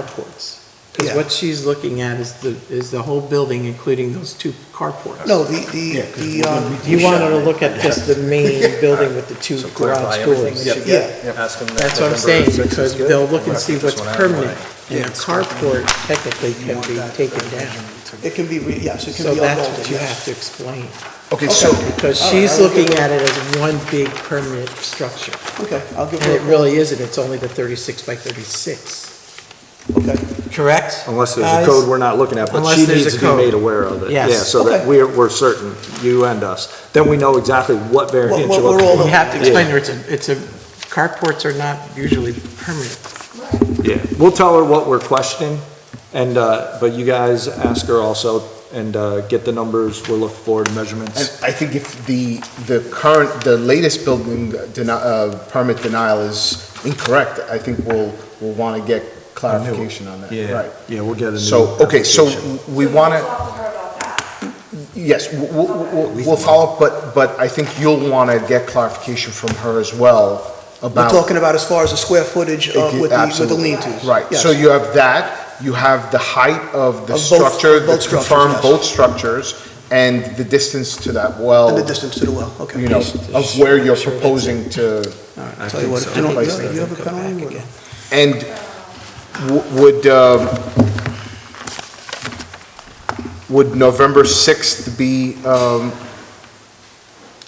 carports. Because Yeah. what she's looking at is the, is the whole building, including those two carports. No, the, the, Yeah, 'cause the, we're um, gonna be- You wanted to look at just the main building with the two So garage clarify everything doors. that you get, ask them that. That's what I'm November saying, 6th is because good, they'll look we'll and see knock what's this one out of the permanent. way. And a carport technically can be taken down. it can be, re- yes, it can So be that's what unmolded, you have yes. to explain. Okay, so, Because All right, she's I will looking give- at it as one big permanent structure. Okay, I'll give And it her, a- really isn't, it's only the 36 by 36. okay, Correct? Unless there's a Guys? code we're not looking at, but Unless she there's needs a to be code. made aware of it. Yes. Yeah, so Okay. that we're, we're certain, you and us, then we know exactly what What- variance what you're we're looking all- at. You have to explain to her, it's a, it's a, carports are not usually permanent. Yeah, we'll tell her what we're questioning, and, uh, but you guys ask her also, and, uh, get the numbers, we're looking for, the And measurements. I think if the, the current, the latest building deni- uh, permit denial is incorrect, I think we'll, we'll want to get clarification on that. Right. Uh, Yeah, we'll get a new. So, okay, so application. we want to, talk to her about that. yes, we'll, we'll- we'll, we'll follow up, but, but I think you'll want to get clarification from her as well we're about. talking about as far as the square footage Thank of, you, uh, with the, with the absolutely. lean-tos. Right, so yes. you have that, you have the height of the Of both- structure, the both structures, confirmed yes. both structures, and the distance to that well. And the distance to the well, okay. you know, of where you're proposing to, All right, I'll tell you what, if you don't, Place you have a Go back penalty, again. or- and w- would, um, would November 6th be, um,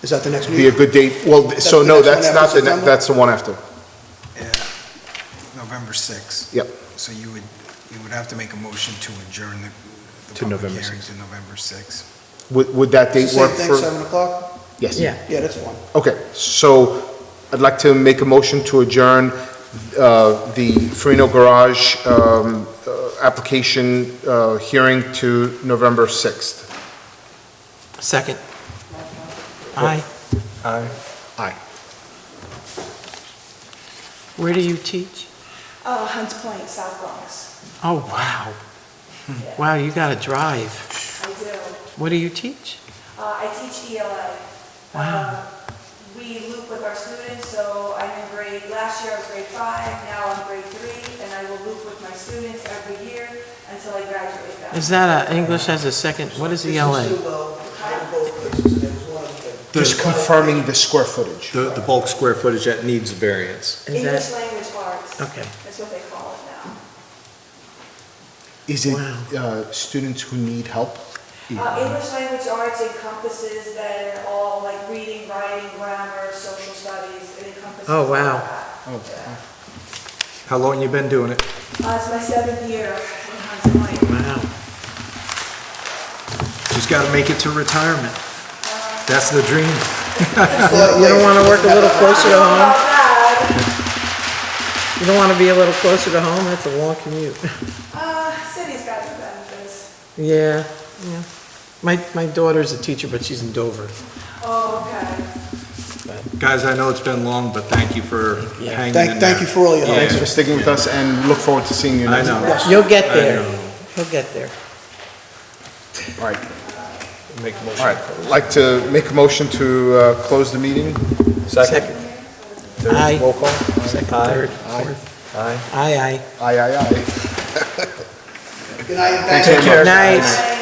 is that the next be a meeting? good date? Well, th- That's the so no, next one after that's not the, ne- September? that's the one after. November 6th. Yep. So you would, you would have to make a motion to adjourn To the the public November hearing to November 6th. Would, would that It's date the work Same thing, for? seven o'clock? Yes. Yeah. Yeah, that's fine. Okay, so I'd like to make a motion to adjourn uh, the Farino Garage um, uh, application uh, hearing to November 6th. Second. Aye. Aye. Where do you teach? Uh, Hunts Point, South Bronx. Oh, wow. Wow, you gotta drive. I do. What do you teach? Uh, I teach ELA. Wow. Um, We loop with our students, so I'm in grade, last year I was grade five, now I'm grade three, and I will loop with my students every year until I graduate them. Is that a English as a second, what is E ELA? uh, Just confirming the square footage. the, the bulk square footage that needs variance. Is English that, Oh. language arts. okay. That's what they call it now. Is it uh, students who need help? Uh, English language arts encompasses then all like reading, writing, grammar, social studies, it encompasses. Oh, wow. all that. Yeah. How long you been doing it? Uh, it's my seventh year in Hunts Point. Wow. Just gotta make it to retirement. That's the dream. You don't wanna work a little closer to home? Not bad. You don't wanna be a little closer to home? That's a long commute. Uh, city's got the benefits. Yeah, yeah. My, my daughter's a teacher, but she's in Dover. Oh, okay. Guys, I know it's been long, but thank you for hanging in there. Thank, thank you for all your help. Yeah. Oh, Thanks for sticking with us and look forward to seeing you I next. know. You'll get I there. know. You'll get there. All right, Make a all motion. right. Like to make a motion to uh, close the meeting? Second? Aye. Roll call? Second, Aye. third, Aye. fourth. Aye. Aye, aye. Aye, aye, aye. Good night, and Thanks, thank you. Chair. Nice. Bye.